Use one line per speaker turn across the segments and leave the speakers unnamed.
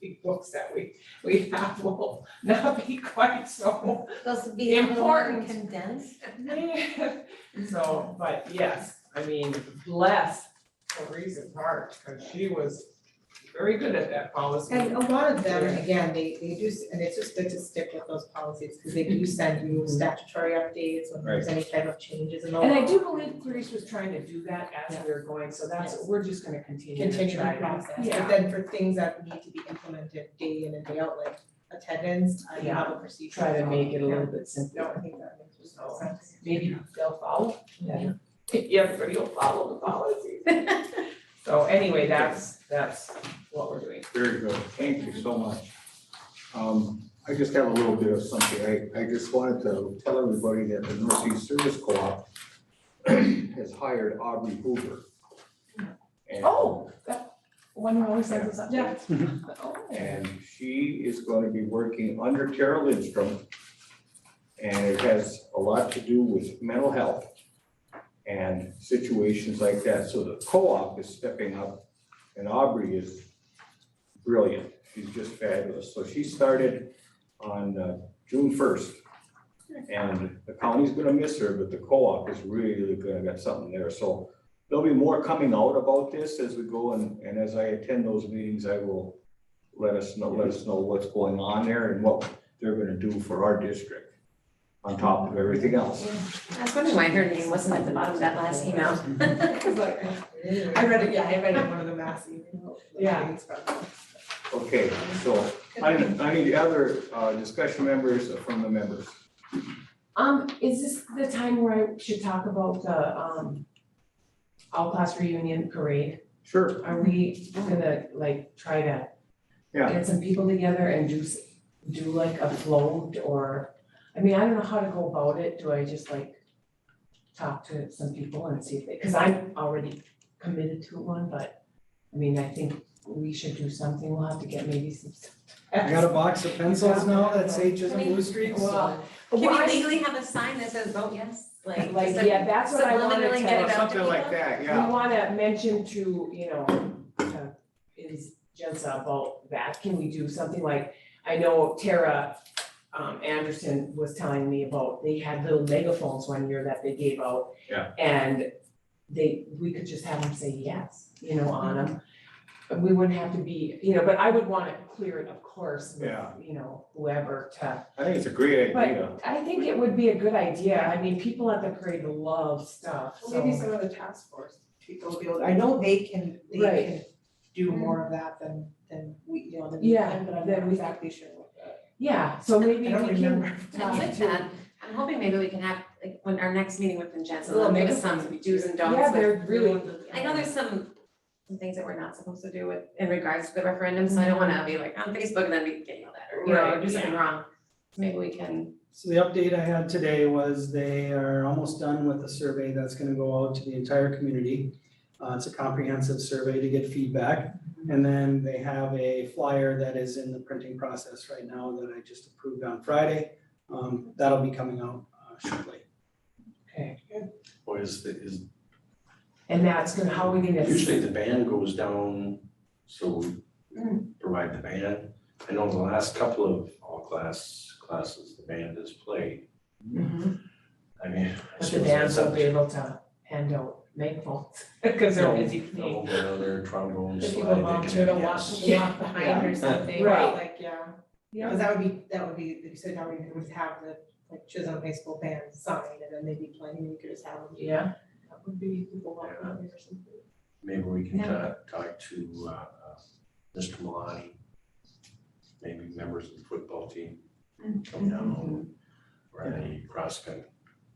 big books that we, we have will not be quite so.
Those would be a little more
Important.
condensed.
So, but yes, I mean, bless Clarice's heart, because she was very good at that policy.
And a lot of them, and again, they, they do, s- and it's just good to stick with those policies, because they do send you
Mm-hmm.
statutory updates when there's any type of changes and all.
oh, And I do believe Clarice was trying to do that as we were going, so that's, we're just gonna continue to
Continue
try
the
to-
process,
Yeah.
but then for things that need to be implemented day in and day out, like attendance, I
Yeah.
have a procedure.
Try to make it a little bit
No,
simpler.
I think that makes
So,
sense.
Maybe they'll follow, then everybody will follow the policies. So anyway, that's, that's what we're doing.
Very good, thank you so much. Um, I just have a little bit of something, I, I just wanted to tell everybody that the Northeast Service Co-op has hired Aubrey Hoover. And-
Oh. One who always has this, yeah.
And she is going to be working under Tara Lindstrom. And it has a lot to do with mental health and situations like that. So the co-op is stepping up and Aubrey is brilliant. She's just fabulous. So she started on uh, June first. And the county's gonna miss her, but the co-op is really gonna get something there. So there'll be more coming out about this as we go and, and as I attend those meetings, I will let us know, let us know what's going on there and what they're gonna do for our district on top of everything else.
I was wondering why her name wasn't at the bottom of that last email.
I read it, yeah, I read it in one of the mass emails.
Yeah.
Okay, so I, I need other uh, discussion members from the members.
Um, is this the time where I should talk about the, um, all-class reunion parade?
Sure.
Are we gonna like try to
Yeah.
get some people together and do, s- do like a float or, I mean, I don't know how to go about it. Do I just like talk to some people and see if they, cause I'm already committed to one, but I mean, I think we should do something. We'll have to get maybe some.
I got a box of pencils now that say Chisholm Blue Street, so.
Well,
Can
why-
we legally have a sign that says vote yes? Like,
Like,
just a-
yeah, that's what I wanted
subliminally
to-
get it out to
Something like
people?
that,
We
yeah.
wanna mention to, you know, uh, is Jensa about that, can we do something like, I know Tara um Anderson was telling me about, they had little megaphones one year that they gave out.
Yeah.
And they, we could just have them say yes, you know, on them. And we wouldn't have to be, you know, but I would wanna clear it, of course, with,
Yeah.
you know, whoever to
I think it's a great
But-
idea.
I think it would be a good idea, I mean, people at the parade love stuff, so.
Maybe some of the task force people will be able, Mm-hmm. I know they can, they
Right.
can do more of that than, than we, you know, than we
Yeah,
can, but I'm
than
not
we-
exactly sure what the.
Yeah, so maybe
I
we
don't
can
remember.
I like that. I'm hoping maybe we can have, like, when our next meeting with Vincenzo,
Little
they'll give us
megaphone.
some do's and don'ts
Yeah,
with-
they're really.
I know there's some, some things that we're not supposed to do with, in regards to the referendum, so I don't wanna be like on Facebook and then be getting all that, or, you know,
Right,
do something
yeah.
wrong. Maybe we can,
So the update I had today was they are almost done with the survey that's gonna go out to the entire community. Uh, it's a comprehensive survey to get feedback, and then they have a flyer that is in the printing process right now that I just approved on Friday. Um, that'll be coming out uh, shortly.
Okay,
Or is, the- is,
and that's gonna, how are we gonna?
usually the band goes down, so we
Mm.
provide the band. I know the last couple of all class, classes, the band has played.
Mhm.
I mean.
But the bands will be able to hand out megaphones, cause they're busy cleaning.
No, no, they're trombones,
If
slide,
you
they can,
volunteer to walk,
yes.
walk behind or something,
Right.
right, like, yeah.
Yeah.
Cause that would be, that would be, you said now we would have the, like Chisholm High School band sign and then they'd be playing, and you could just have them.
Yeah,
That would be people walking around or something.
Maybe we can
Yeah.
talk, talk to, uh, uh, Mr. Milani. Maybe members of the football team
Mm-hmm.
come down, or any cross coun-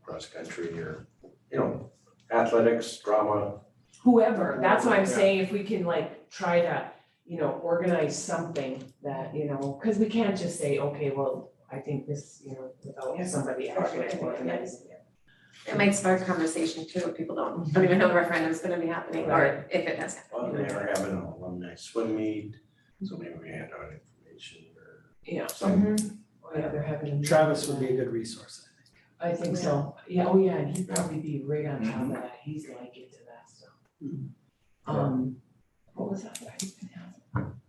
cross country or, you know, athletics, drama.
whoever, that's what I'm
Yeah.
saying, if we can like try to, you know, organize something that, you know, cause we can't just say, okay, well, I think this, you know,
Yeah.
without somebody actually organizing it.
it might spark conversation too, if people don't, don't even know the referendum's gonna be happening, or if it has happened.
Well, they are having an alumni swim meet, so maybe we hand out information or
Yeah,
something.
oh yeah, they're having.
Travis would be a good resource, I think.
I think so, yeah, oh yeah, and he'd probably be right on top of that, he's like into that stuff.
Mhm.
Um, what was that, that I was gonna ask?